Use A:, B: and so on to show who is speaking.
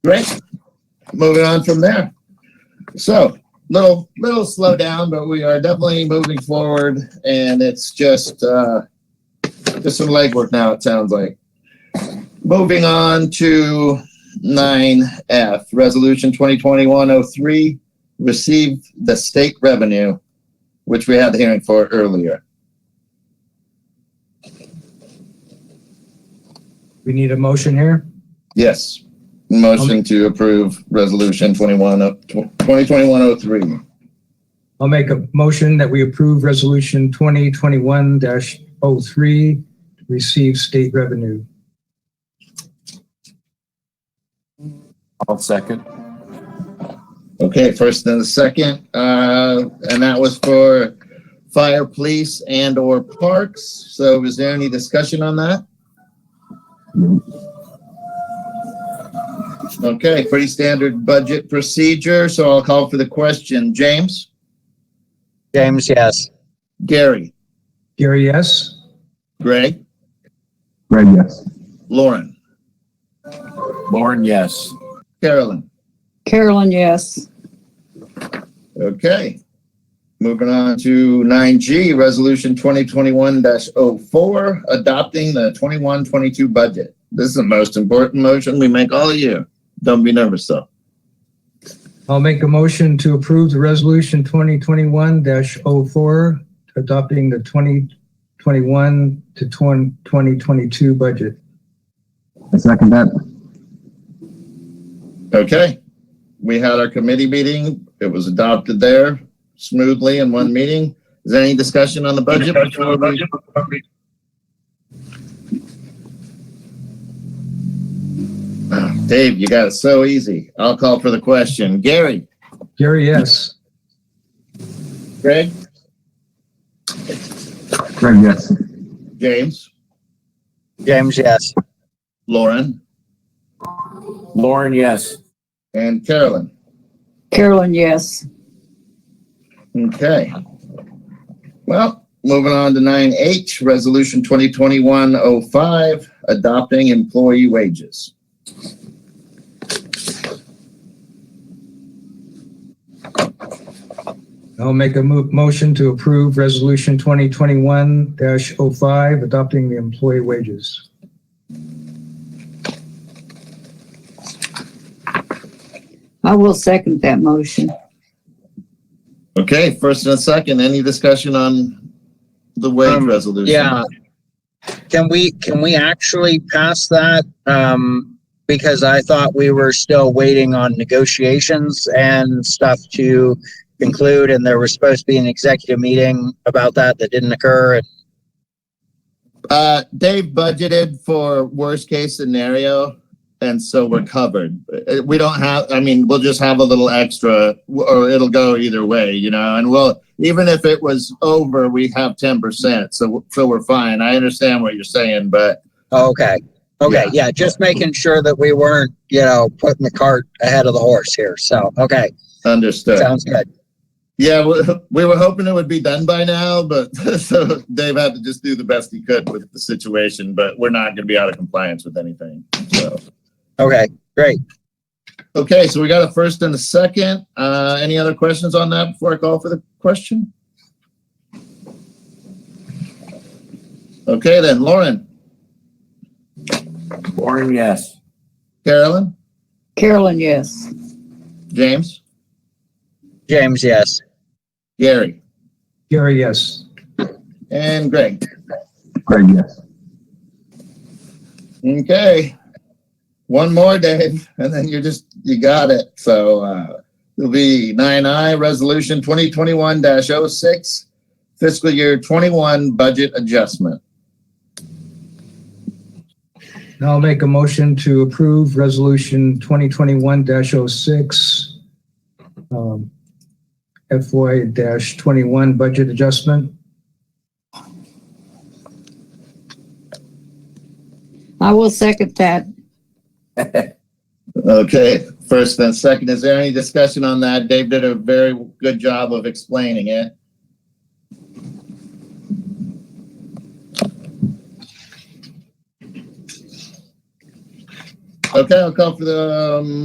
A: Great. Moving on from there. So little little slow down, but we are definitely moving forward, and it's just uh, just some legwork now. It sounds like. Moving on to nine F, Resolution 2021-03, receive the state revenue, which we had the hearing for earlier.
B: We need a motion here.
A: Yes. Motion to approve Resolution oh, 21 of- 2021-03.
B: I'll make a motion that we approve resolution twenty twenty-one 3 to receive state revenue.
C: I'll second.
A: Okay, first and the second, uh, and that was for fire, police, and or parks. So is there any discussion on that? Okay, pretty standard budget procedure, so I'll call for the question. James?
D: James, yes.
A: Gary?
B: Gary, yes?
A: Greg?
C: Greg, yes.
A: Lauren?
C: Lauren, yes.
A: Carolyn?
E: Carolyn, yes.
A: Okay. Moving on to nine G, resolution twenty twenty-one 4 adopting the twenty-one, twenty-two budget. This is the most important motion we make all year. Don't be nervous though.
B: I'll make a motion to approve the resolution twenty twenty-one 4 adopting the twenty twenty-one to 20- 2022 budget.
C: I second that.
A: Okay. We had our committee meeting. It was adopted there smoothly in one meeting. Is there any discussion on the budget? before we- Ah, Dave, you got it so easy. I'll call for the question. Gary?
B: Gary, yes?
A: Greg?
C: Greg, yes.
A: James?
D: James, yes.
A: Lauren?
C: Lauren, yes.
A: And Carolyn.
E: Carolyn, yes.
A: Okay. Well, moving on to nine H, resolution twenty twenty-one oh five, adopting employee wages.
B: I'll make a mo- motion to approve resolution twenty twenty-one 5 adopting the employee wages.
E: I will second that motion.
A: Okay, first and a second, any discussion on the wage
D: Um,
A: resolution?
D: Yeah. Can we, can we actually pass that? Um, because I thought we were still waiting on negotiations and stuff to conclude and there was supposed to be an executive meeting about that that didn't occur. And
A: Uh, Dave budgeted for worst case scenario, and so we're covered. Uh, We don't have, I mean, we'll just have a little extra, w- or it'll go either way, you know, and we'll, even if it was over, we have ten percent, so, w- so we're fine. I understand what you're saying, but
D: oh, Okay, okay, yeah, just making sure that we weren't, you know, putting the cart ahead of the horse here. So, okay,
A: understood.
D: sounds good.
A: Yeah, we, we were hoping it would be done by now, but so Dave had to just do the best he could with the situation, but we're not gonna be out of compliance with anything, so.
D: Okay, great.
A: Okay, so we got a first and a second. Uh, any other questions on that before I call for the question? Okay, then Lauren,
C: Lauren, yes.
A: Carolyn,
E: Carolyn, yes.
A: James,
D: James, yes.
A: Gary,
B: Gary, yes?
A: and Greg.
C: Greg, yes.
A: Okay. One more, Dave, and then you're just, you got it. So, uh, it'll be nine I, resolution twenty twenty-one 6 fiscal year twenty-one budget adjustment.
B: And I'll make a motion to approve Resolution 2021-06, um, FY-21 budget adjustment.
E: I will second that.
A: Okay, first and second, is there any discussion on that? Dave did a very good job of explaining it. Okay, I'll call for the um,